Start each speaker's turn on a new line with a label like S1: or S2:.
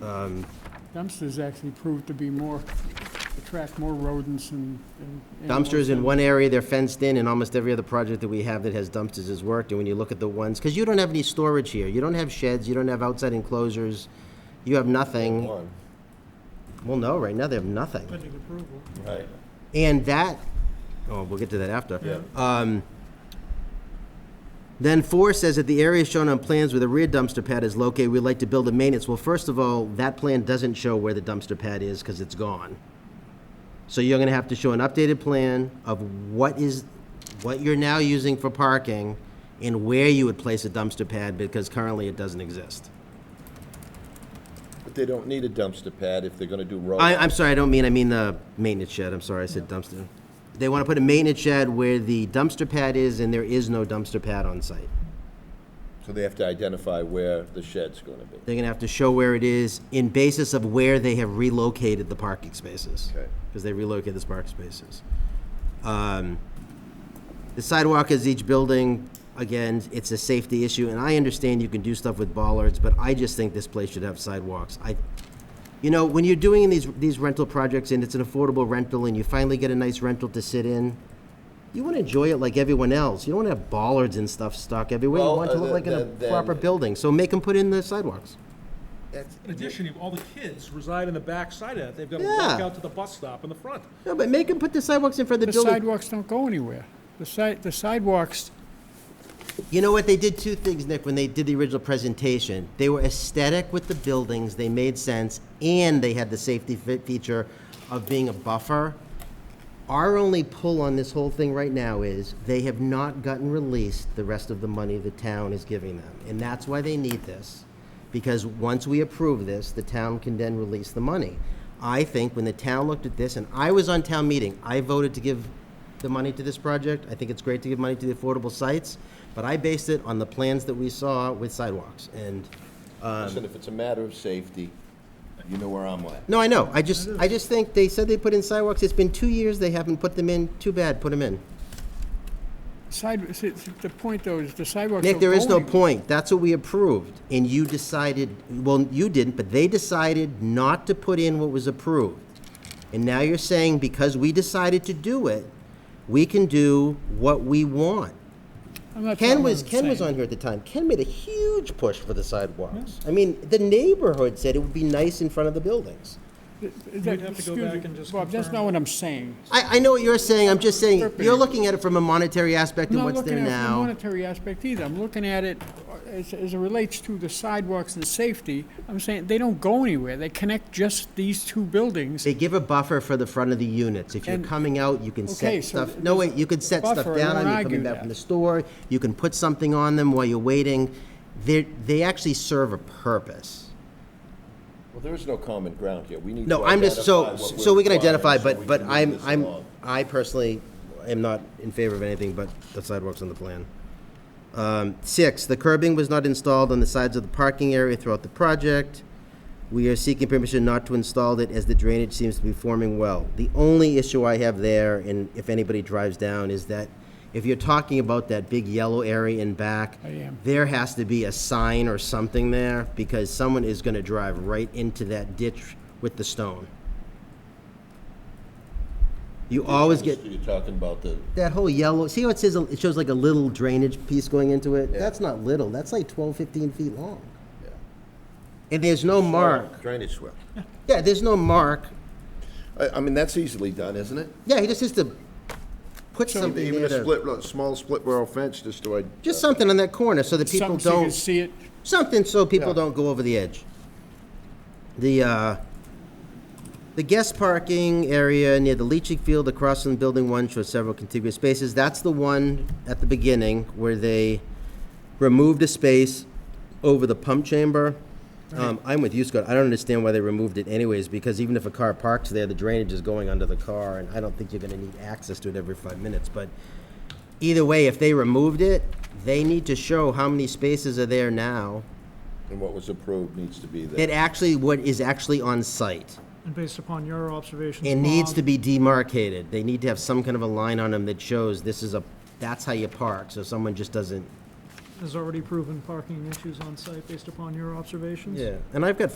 S1: Um,
S2: Dumpsters actually prove to be more, attract more rodents and. and animals
S1: Dumpsters in
S2: than-
S1: one area, they're fenced in, and almost every other project that we have that has dumpsters has worked, and when you look at the ones, because you don't have any storage here, you don't have sheds, you don't have outside enclosures, you have nothing.
S3: One,
S1: Well, no, right now they have nothing.
S2: Pending approval.
S3: right.
S1: And that, oh, we'll get to that after.
S3: Yeah.
S2: Uh,
S1: Um, then four says that the area shown on plans where the rear dumpster pad is located, we'd like to build a maintenance. Well, first of all, that plan doesn't show where the dumpster pad is because it's gone. So you're gonna have to show an updated plan of what is, what you're now using for parking and where you would place a dumpster pad because currently it doesn't exist.
S3: But they don't need a dumpster pad if they're gonna do road.
S1: I, I'm sorry, I don't mean, I mean the maintenance shed, I'm sorry, I said dumpster. They want to put a maintenance shed where the dumpster pad is, and there is no dumpster pad on site.
S3: So they have to identify where the shed's gonna be.
S1: They're gonna have to show where it is in basis of where they have relocated the parking spaces.
S3: Okay.
S1: Because they relocated the parking spaces. Um, The sidewalk is each building, again, it's a safety issue, and I understand you can do stuff with bollards, but I just think this place should have sidewalks. I, you know, when you're doing these, these rental projects and it's an affordable rental and you finally get a nice rental to sit in, you wanna enjoy it like everyone else. You don't wanna have bollards and stuff stuck everywhere. You
S3: Well,
S1: want it to
S3: uh,
S1: look like a
S3: then- then-
S1: proper building, so make them put in the sidewalks.
S3: That's-
S4: In addition, you- all the kids reside in the back side of that. They've got to
S1: Yeah.
S4: walk out to the bus stop in the front.
S1: No, but make them put the sidewalks in front of
S2: The
S1: the building.
S2: sidewalks don't go anywhere. The side, the sidewalks,
S1: You know what, they did two things, Nick, when they did the original presentation. They were aesthetic with the buildings, they made sense, and they had the safety fe- feature of being a buffer. Our only pull on this whole thing right now is they have not gotten released the rest of the money the town is giving them. And that's why they need this. Because once we approve this, the town can then release the money. I think when the town looked at this, and I was on town meeting, I voted to give the money to this project. I think it's great to give money to the affordable sites, but I based it on the plans that we saw with sidewalks. And, Um,
S3: Listen, if it's a matter of safety, you know where I'm at.
S1: no, I know, I just, I just think they said they put in sidewalks. It's been two years they haven't put them in. Too bad, put them in.
S2: side, see, the point though is the sidewalks
S1: Nick,
S2: don't
S1: there
S2: go
S1: is no
S2: anywhere.
S1: point. That's what we approved. And you decided, well, you didn't, but they decided not to put in what was approved. And now you're saying because we decided to do it, we can do what we want.
S2: I'm not
S1: Ken
S2: talking
S1: was,
S2: about
S1: Ken was
S2: saying-
S1: on here at the time. Ken made a huge push for the sidewalks. I mean, the neighborhood said it would be nice in front of the buildings.
S2: That-
S4: You'd have to go
S2: excuse
S4: back
S2: me,
S4: and just
S2: Bob, that's
S4: confirm.
S2: not what I'm saying.
S1: I, I know what you're saying. I'm just saying, you're
S2: Interpreting.
S1: looking at it from a monetary aspect
S2: I'm
S1: of
S2: not
S1: what's
S2: looking
S1: there
S2: at it from a
S1: now.
S2: monetary aspect either. I'm looking at it uh, as, as it relates to the sidewalks and safety. I'm saying they don't go anywhere. They connect just these two buildings.
S1: They give a buffer for the front of the units. If you're
S2: And-
S1: coming out, you can
S2: Okay,
S1: set
S2: so
S1: stuff,
S2: th-
S1: no,
S2: there's
S1: wait, you can set stuff
S2: buffer, I
S1: down,
S2: won't
S1: you're coming
S2: argue
S1: back
S2: that.
S1: from the store, you can put something on them while you're waiting. They, they actually serve a purpose.
S3: Well, there is no common ground here. We need to
S1: No, I'm just, so,
S3: identify what
S1: so
S3: we're
S1: we can
S3: requiring
S1: identify,
S3: so
S1: but,
S3: we
S1: but
S3: can move
S1: I'm,
S3: this
S1: I'm,
S3: along.
S1: I personally am not in favor of anything but the sidewalks on the plan. Um, six, the curbing was not installed on the sides of the parking area throughout the project. We are seeking permission not to install it as the drainage seems to be forming well. The only issue I have there, and if anybody drives down, is that if you're talking about that big yellow area in back,
S2: I am.
S1: there has to be a sign or something there because someone is going to drive right into that ditch with the stone. You always get
S3: You're talking about the,
S1: that whole yellow, see how it says, it shows like a little drainage piece going into it? That's not little, that's like 12, 15 feet long.
S3: yeah.
S1: And there's no mark.
S3: Drainage swale.
S1: Yeah, there's no mark.
S3: I, I mean, that's easily done, isn't it?
S1: Yeah, he just has to put something
S3: Even
S1: there
S3: a
S1: to,
S3: split, row- small split rail fence just to. uh, id-
S1: just something on that corner so that people
S2: Something so you can
S1: don't,
S2: see it.
S1: something so people
S3: Yeah.
S1: don't go over the edge. The, uh, the guest parking area near the leaching field across from Building One shows several contiguous spaces. That's the one at the beginning where they removed a space over the pump chamber. Um, I'm with you, Scott. I don't understand why they removed it anyways, because even if a car parks there, the drainage is going under the car, and I don't think you're gonna need access to it every five minutes, but either way, if they removed it, they need to show how many spaces are there now.
S3: And what was approved needs to be there.
S1: That actually, what is actually on site.
S5: And based upon your observations,
S1: It needs to
S5: Bob,
S1: be demarcated. They need to have some kind of a line on them that shows this is a, that's how you park, so someone just doesn't.
S5: has already proven parking issues on site based upon your observations?
S1: And I've got